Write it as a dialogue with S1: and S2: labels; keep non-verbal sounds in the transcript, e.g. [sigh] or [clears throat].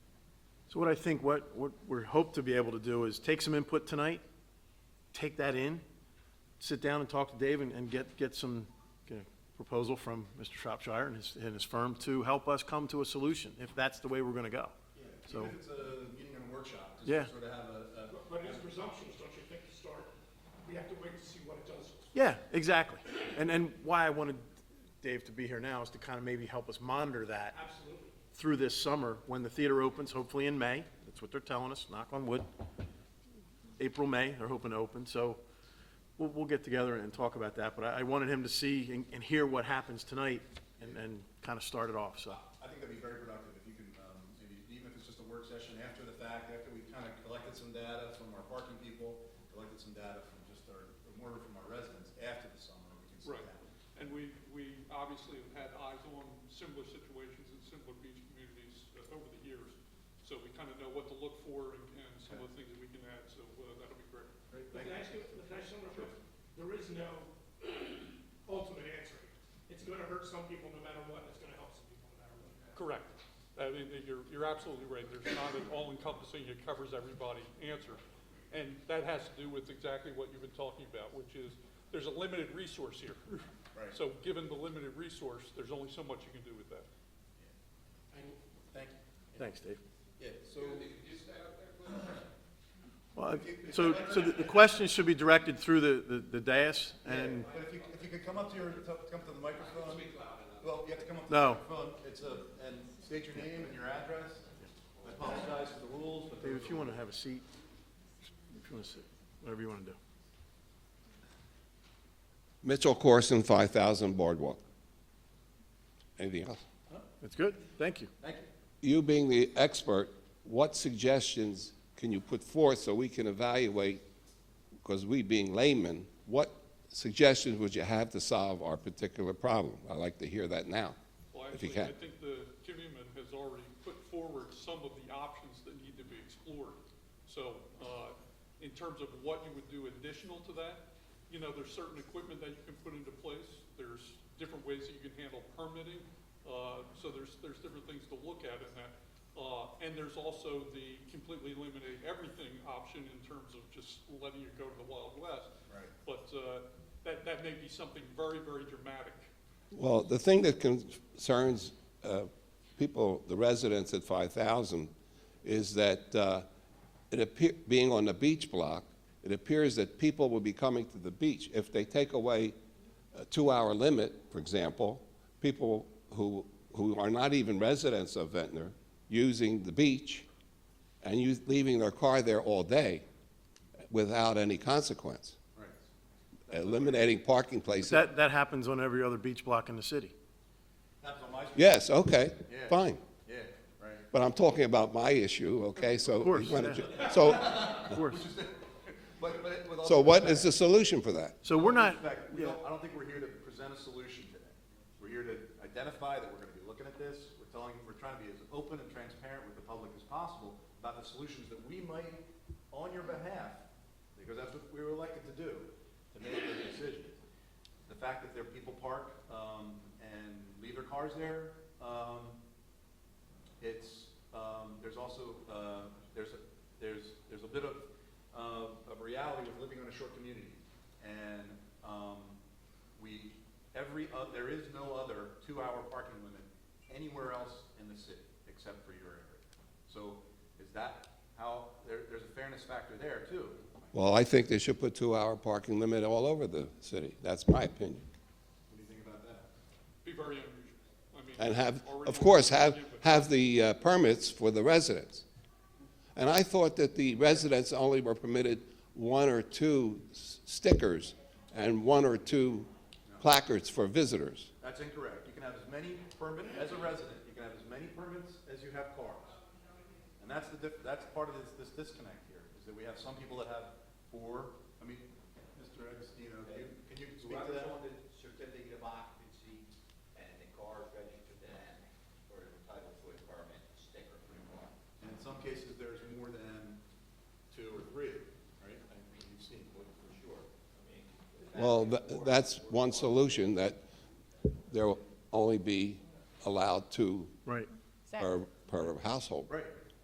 S1: So what I think, what, what we're hope to be able to do is take some input tonight, take that in, sit down and talk to Dave and, and get, get some you know, proposal from Mr. Shropshire and his, and his firm to help us come to a solution, if that's the way we're gonna go. So,
S2: Even if it's a meeting and a workshop, just
S1: Yeah.
S2: to sort of have a, a
S3: But it's presumptuous, don't you think, to start? We have to wait to see what it does.
S1: yeah, exactly. And, and why I wanted Dave to be here now is to kind of maybe help us monitor that
S3: Absolutely.
S1: through this summer, when the theater opens, hopefully in May, that's what they're telling us, knock on wood. April, May, they're hoping to open, so we'll, we'll get together and talk about that, but I, I wanted him to see and, and hear what happens tonight and, and kind of start it off, so.
S2: I think that'd be very productive if you can, um, maybe, even if it's just a work session after the fact, after we've kind of collected some data from our parking people, collected some data from just our, more from our residents, after the summer, we can sit
S4: Right,
S2: down.
S4: and we, we obviously have had eyes on similar situations in similar beach communities uh, over the years. So we kind of know what to look for and, and some of the things that we can add, so uh, that'll be great.
S3: But can I ask you, can I ask someone a question? There is no [clears throat] ultimate answer. It's gonna hurt some people no matter what, and it's gonna help some people no matter what.
S4: Correct. I mean, uh, you're, you're absolutely right. There's not an all-encompassing, it covers everybody answer. And that has to do with exactly what you've been talking about, which is, there's a limited resource here.
S2: Right.
S4: So given the limited resource, there's only so much you can do with that.
S2: Thank you.
S1: Thanks, Dave.
S2: Yeah, so,
S1: Well, I- so, so the the questions should be directed through the, the- the dais and,
S2: but if you, if you could come up to your, to- come to the microphone. Well, you have to come up to the
S1: No.
S2: microphone, it's a, and state your name and your address. I apologize for the rules, but.
S1: Dave, if you want to have a seat, if you want to sit, whatever you want to do.
S5: Mitchell Corson, 5,000 Boardwalk. Anything else?
S1: That's good, thank you.
S2: Thank you.
S5: You being the expert, what suggestions can you put forth so we can evaluate, because we being laymen, what suggestions would you have to solve our particular problem? I'd like to hear that now,
S4: Well,
S5: if you
S4: actually, I
S5: can.
S4: think the commitment has already put forward some of the options that need to be explored. So, uh, in terms of what you would do additional to that, you know, there's certain equipment that you can put into place. There's different ways that you can handle permitting. Uh, so there's, there's different things to look at in that. Uh, and there's also the completely eliminate everything option in terms of just letting you go to the Wild West.
S2: Right.
S4: But, uh, that, that may be something very, very dramatic.
S5: Well, the thing that concerns uh, people, the residents at 5,000, is that uh, it appear, being on the beach block, it appears that people will be coming to the beach. If they take away a two-hour limit, for example, people who, who are not even residents of Ventnor using the beach and you, leaving their car there all day without any consequence. Eliminating parking places.
S1: That, that happens on every other beach block in the city.
S2: Happens on my street.
S5: Yes, okay,
S2: Yeah.
S5: fine.
S2: Yeah, right.
S5: But I'm talking about my issue, okay? So. Of
S1: course,
S5: So,
S1: Of course.
S2: But, but with all
S5: so
S2: due
S5: what
S2: respect-
S5: is the solution for that?
S1: So we're not,
S2: respect, we
S1: yeah.
S2: don't, I don't think we're here to present a solution today. We're here to identify that we're gonna be looking at this, we're telling, we're trying to be as open and transparent with the public as possible about the solutions that we might, on your behalf, because that's what we were elected to do, to make the decision. The fact that there are people park, um, and leave their cars there, um, it's, um, there's also, uh, there's, a- there's, there's a bit of, of of reality of living on a short community. And, um, we, every, oth- there is no other two-hour parking limit anywhere else in the city except for your area. So is that how, there, there's a fairness factor there too. What
S5: Well, I think they should put two-hour parking limit all over the city. That's my opinion.
S2: do you think about that?
S4: be very unusual. I mean,
S5: And have,
S4: already-
S5: of course, have, have the uh, permits for the residents. And I thought that the residents only were permitted one or two s- stickers and one or two placards for visitors.
S2: That's incorrect. You can have as many permit, as a resident, you can have as many permits as you have cars. And that's the diff, that's part of this, this disconnect here, is that we have some people that have four, I mean, Mr. Agostino, do you, can you
S6: So I
S2: speak to
S6: was
S2: that?
S6: on the certificate of occupancy and the car registered to them or entitled to a permit sticker for the car.
S2: And in some cases, there's more than two or three, right? I mean, you've seen, what- for sure.
S5: Well, tha- that's one solution, that there will only be allowed two
S1: right,
S5: per, per household.
S2: Right,